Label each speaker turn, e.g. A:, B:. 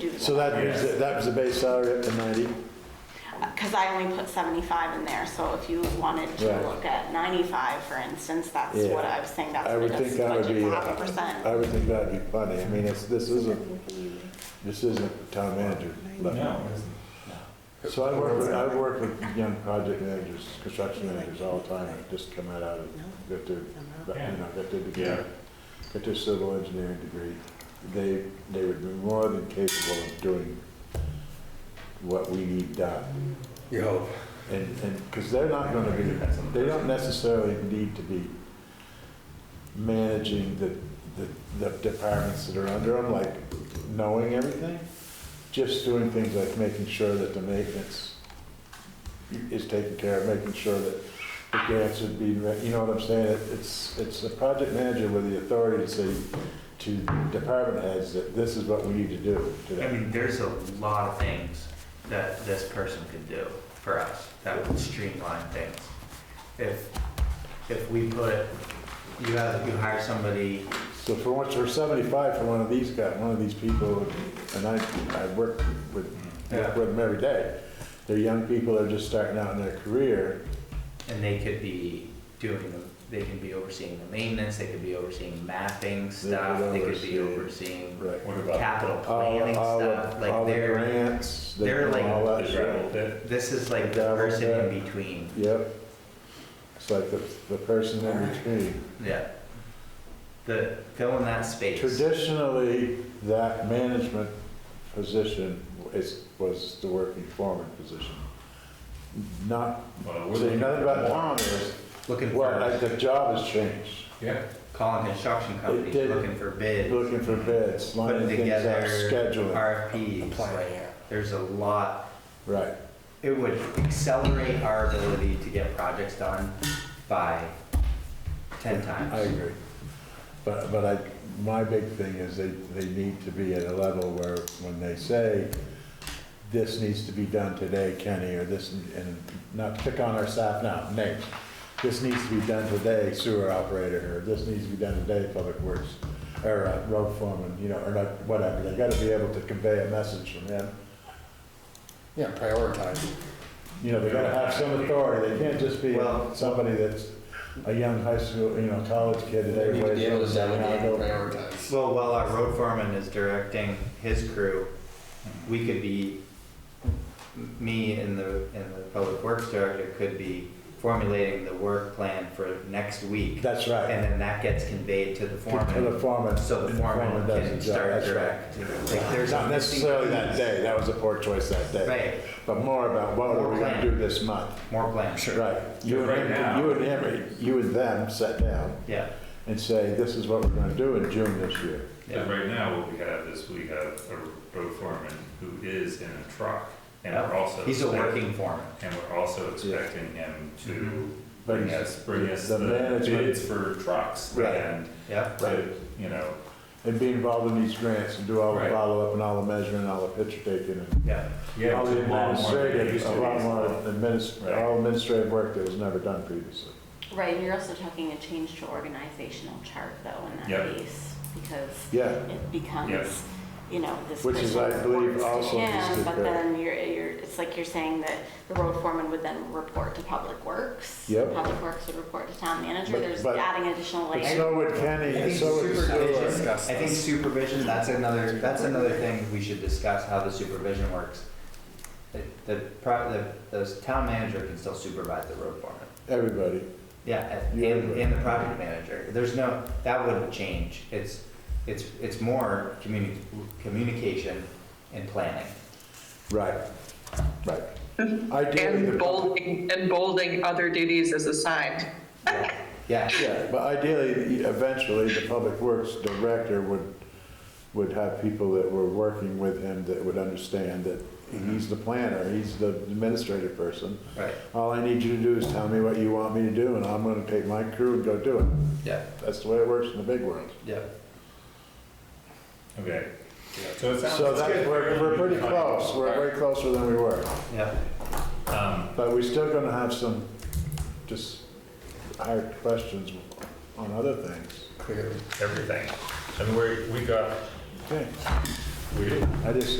A: do
B: So that moves, it- that was the base salary up to 90?
A: Because I only put 75 in there, so if you wanted to
B: Right.
A: look at 95, for instance, that's
B: Yeah.
A: what I was saying, that's
B: I
A: what
B: would
A: it's
B: think that would
A: budget
B: be, uh,
A: for half a percent.
B: I would think that'd be funny. I mean, it's, this isn't, this isn't town manager level.
C: No, it isn't.
B: So I work with, I work with young project managers, construction managers all the time, that just come out of, got their, you know, got their degree,
C: Yeah.
B: got their civil engineering degree. They, they would be more than capable of doing what we need done.
D: You hope.
B: And, and, because they're not gonna be, they don't necessarily need to be managing the, the, the departments that are under them, like knowing everything. Just doing things like making sure that the maintenance is taken care of, making sure that the grants are being, re- you know what I'm saying? It- It's, it's the project manager with the authority to say to department heads that this is what we need to do
E: I
B: today.
E: mean, there's a lot of things that this person could do for us that would streamline things. If, if we put, you have, you hire somebody,
B: So for once, for seventy-five for one of these guys, one of these people, and I, I work with, work
E: Yeah.
B: with them every day. They're young people, they're just starting out in their career.
E: and they could be doing, the- they can be overseeing the maintenance, they could be overseeing mapping stuff, they could be
B: oversee-
E: overseeing
B: Right.
C: What about
E: capital
B: All,
E: planning
B: all the-
E: stuff,
B: all
E: like
B: the
E: they're,
B: grants, they
E: they're
B: do
E: like-
B: all that
C: the gravel
B: shit.
C: pit?
E: this is like the person in between,
B: Yep. It's like the, the person in between.
E: yeah. The, fill in that space.
B: Traditionally, that management position is, was the working foreman position. Not,
C: Well,
B: saying
C: we're looking
B: nothing
C: for
B: about
C: more.
B: Tom is,
E: Looking
B: well, like
E: for,
B: the job has changed.
C: Yeah,
E: calling construction companies,
B: did-
E: looking for bids.
B: Looking for bids, lining
E: putting
B: things up,
E: together
B: scheduling,
E: RFPs. like, There's a lot,
B: right.
E: it would accelerate our ability to get projects done by ten
B: I
E: times.
B: agree. But, but I, my big thing is they, they need to be at a level where when they say, this needs to be done today, Kenny, or this, and not to pick on our staff now, Nate. This needs to be done today, sewer operator, or this needs to be done today, public works, or uh, road foreman, you know, or not, whatever. They gotta be able to convey a message from them.
D: Yeah, prioritize.
B: You know, they gotta have some authority, they can't just be
E: Well-
B: somebody that's a young high school, you know, college kid that
D: You need to
B: everybody's.
D: be able to
B: saying, "I'll
D: delegate
B: go
D: and prioritize.
E: Well, while our road foreman is directing his crew, we could be, me and the, and the public works director could be formulating the work plan for next week.
B: That's right.
E: And then that gets conveyed to the
B: To the
E: foreman,
B: foreman.
E: so the foreman
B: does
E: can
B: his job.
E: start
B: That's right.
E: directing. Like, there's
B: Not
E: a missing
B: necessarily that
E: piece.
B: day, that was a poor choice that day,
E: Right,
B: but more about what are we gonna
E: More
B: do this month?
E: more plans.
B: Right. You
C: Right
B: and him,
C: now.
B: you and him, you and them sat down
E: Yeah,
B: and say, this is what we're gonna do in June this year.
C: But
E: yeah,
C: right now, what we have is we have a road foreman who is in a truck, and
E: Yeah.
C: we're also.
E: Oh, he's a
C: expect-
E: working foreman.
C: And we're also expecting him to
B: Mm-hmm. But
C: bring
B: he's-
C: us, bring us
B: the
C: the
B: management-
C: bids for trucks
B: Right.
C: and
E: Yeah,
B: Right.
C: to, you know,
B: And be involved in these grants and do all the
C: Right.
B: follow-up and all the measuring, all the picture taking and
E: yeah.
C: yeah,
B: all
C: it's
B: the
C: a lot more than it
B: administrative,
C: used to
B: a
C: be.
B: lot more administrative,
C: Right.
B: all administrative work that was never done previously.
A: Right, and you're also talking a change to organizational chart though in
C: Yep.
A: that case, because
B: Yeah,
A: it
C: Yes.
A: becomes, you know, this
B: Which is, I
A: person
B: believe,
A: reports to
B: also
A: him,
B: just a
A: But
B: bit-
A: then you're, you're, it's like you're saying that the road foreman would then report to Public Works.
B: Yep.
A: Public Works would report to town manager,
B: But-
A: there's
B: but-
A: adding additional
B: but
A: layers.
B: so would Kenny,
E: I
B: and
E: think
B: so would the
E: supervision-
B: sewer.
D: Discuss
E: I think
D: this.
E: supervision, that's another, that's another thing we should discuss, how the supervision works. The, the, pro- the, the town manager can still supervise the road foreman.
B: everybody.
E: Yeah, and,
B: Yeah.
E: and and the project manager. There's no, that wouldn't change. It's, it's, it's more communi, communication and planning.
B: Right, Mm-hmm. right. Ideally, the
F: And bolding, and bolding other duties as assigned.
E: Yeah,
B: Yeah, but ideally, eventually, the public works director would, would have people that were working with him that would understand that he's the planner, he's the administrative person.
E: right,
B: All I need you to do is tell me what you want me to do, and I'm gonna take my crew and go do it.
E: yeah,
B: That's the way it works in the big world.
E: yeah.
C: Okay, so it sounds.
B: So that, we're, we're pretty close, we're way closer than we were,
E: Yeah,
C: Um,
B: but we're still gonna have some, just hard questions on other things.
D: Clearly.
C: everything. And we, we got,
B: Okay,
C: we,
B: I just,